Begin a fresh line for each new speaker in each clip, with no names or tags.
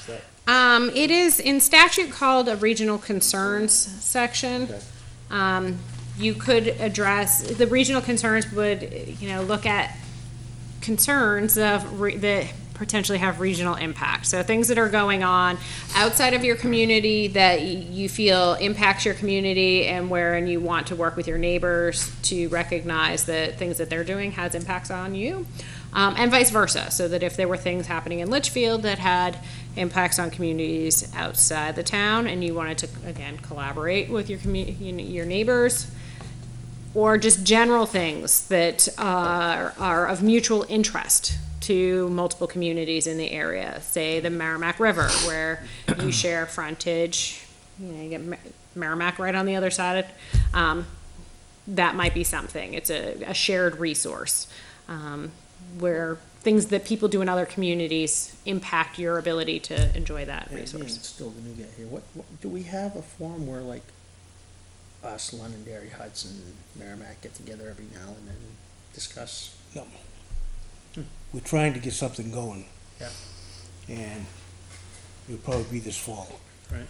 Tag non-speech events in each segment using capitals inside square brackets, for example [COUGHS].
Is that,
Um, it is in statute called a regional concerns section.
Okay.
Um, you could address, the regional concerns would, you know, look at concerns of, re- that potentially have regional impact. So things that are going on outside of your community that y- you feel impacts your community and wherein you want to work with your neighbors to recognize that things that they're doing has impacts on you. Um, and vice versa, so that if there were things happening in Litchfield that had impacts on communities outside the town and you wanted to, again, collaborate with your commu- you know, your neighbors, or just general things that are, are of mutual interest to multiple communities in the area. Say the Merrimack River, where
[CLEARS THROAT]
you share frontage, you know, you get Mer- Merrimack right on the other side. Um, that might be something. It's a, a shared resource um, where things that people do in other communities impact your ability to enjoy that
yeah, Ian,
resource.
still the new guy here, what, what, do we have a forum where like us, Londonderry, Hudson, Merrimack get together every now and then and discuss?
No. We're trying to get something going,
Yeah.
and it'll probably be this fall.
Right.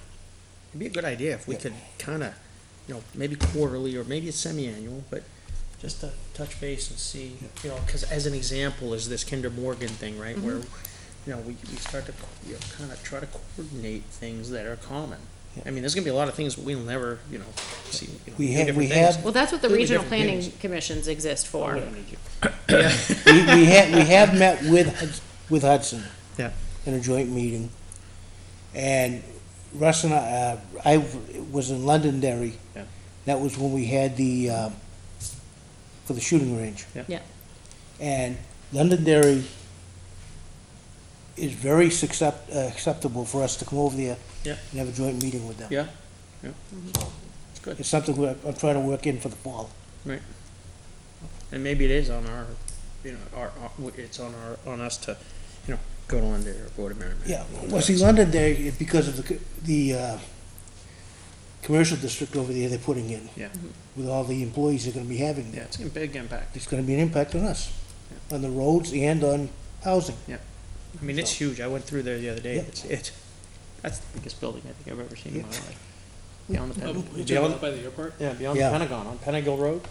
It'd be a good idea if we
Yeah.
could kinda, you know, maybe quarterly or maybe it's semi-annual, but just to touch base and see, you know, cause as an example is this Kinder Morgan thing, right? Where, you know, we, we start to, co- you know, kinda try to coordinate things that are common.
Yeah.
I mean, there's gonna be a lot of things we'll never, you know, see. you know,
We
do
have-
different
we
things.
have-
Well, that's what the
Really
regional
different Oh,
planning
things.
commissions exist for.
We, we have, we have met with, Hud- with Hudson.
Yeah.
In a joint meeting, and Russ and I, uh, I was in Londonderry.
Yeah.
That was when we had the, um, for the shooting range.
Yeah.
Yeah.
And Londonderry is very accept, uh, acceptable for us to come over there.
Yeah.
And have a joint meeting with them.
Yeah, yeah. It's good,
It's something we're, I'm trying to work in for the fall.
right. And maybe it is on our, you know, our, our- w- it's on our, on us to, you know, go to London or go to Merrimack.
Yeah,
Or
well, see,
whatever.
London there, because of the, co- the, uh, commercial district over there they're putting in,
Yeah,
with all the employees they're gonna be having
yeah,
there.
it's a big impact.
It's gonna be an impact on us, on the roads and on housing.
I mean, it's
So-
huge. I went through there the other day.
Yeah.
Mm.
It's, it's, that's the biggest building I think I've ever seen in my
Yeah.
life. Beyond the
Um,
Pentagon.
you talking about by the airport?
yeah, beyond the
Yeah.
Pentagon, on Pentagon Road.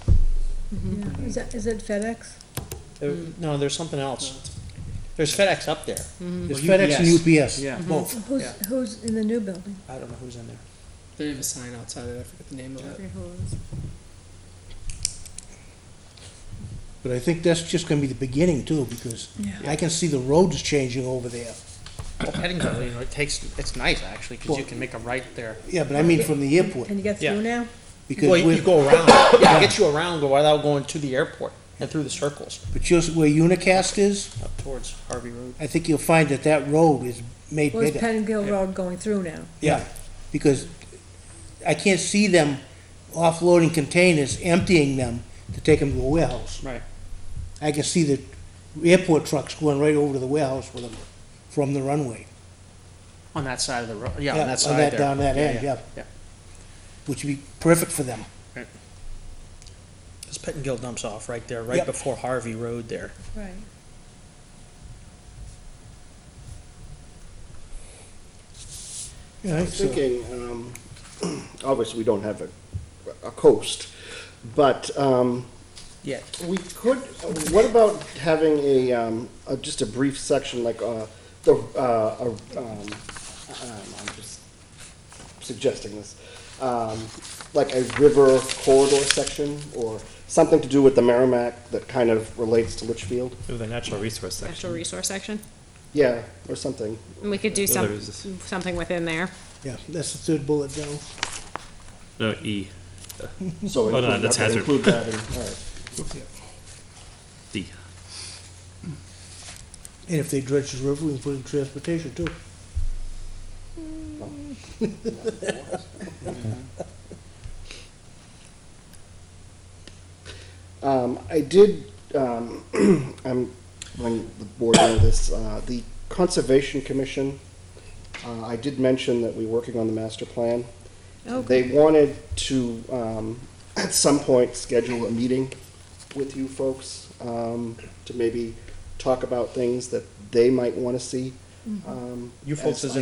Is that, is it FedEx?
There,
Mm-hmm.
No, there's something else. There's FedEx up there.
There's
Well,
FedEx and UPS.
E Yeah.
Mm-hmm.
Both.
Who's,
Yeah.
who's in the new building?
I don't know who's in there.
They have a sign outside it. I forget the name of it.
But I think that's just gonna be the beginning too, because I can see the roads changing over there.
Well, Pentagon, you know, it takes, it's nice actually, cause you can make a right there.
Yeah, but I mean from the airport,
And you get
Yeah.
through now?
because
Well, you you
we're,
go [COUGHS] around. It gets you around without going to the airport and through the circles
but just where Unicast is,
up towards Harvey Road.
I think you'll find that that road is made
Where's
bigger.
Pengill
Yeah.
Road going through now?
Yeah, because I can't see them offloading containers, emptying them to take them to a warehouse.
Right.
I can see the airport trucks going right over to the warehouse with them from the runway,
On that side of the road, yeah,
Yeah,
on that
on
side
that-
there.
down that end, yeah.
Yeah,
which would be perfect for them.
because Pettingill dumps off right there, right
Yep.
before Harvey Road there.
Right.
Yeah,
I'm thinking, um, [CLEARS THROAT] obviously, we don't have a, a coast, but, um,
Yeah.
we could, what about having a, um, a- just a brief section, like, uh, the, uh, a- um, um, I'm just suggesting this, um, like a river corridor section, or something to do with the Merrimack that kind of relates to Litchfield?
Ooh, the natural resource
Natural
section.
resource section.
Yeah, or something.
And we could do
Well,
some,
there is this-
something within there.
Yeah, that's the third bullet down.
No, E,
So
Hold on,
include-
Oh, that's
okay,
hazard.
Include that in, all right.
D.
And if they dredge the river, we can put in transportation too.
Um, I did, um, [CLEARS THROAT] I'm letting the board know this, uh, the Conservation Commission, uh, I did mention that we're working on the master plan. They wanted to, um, [CLEARS THROAT] at some point, schedule a meeting with you folks, um, to maybe talk about things that they might wanna see. Um,
You folks
as
as in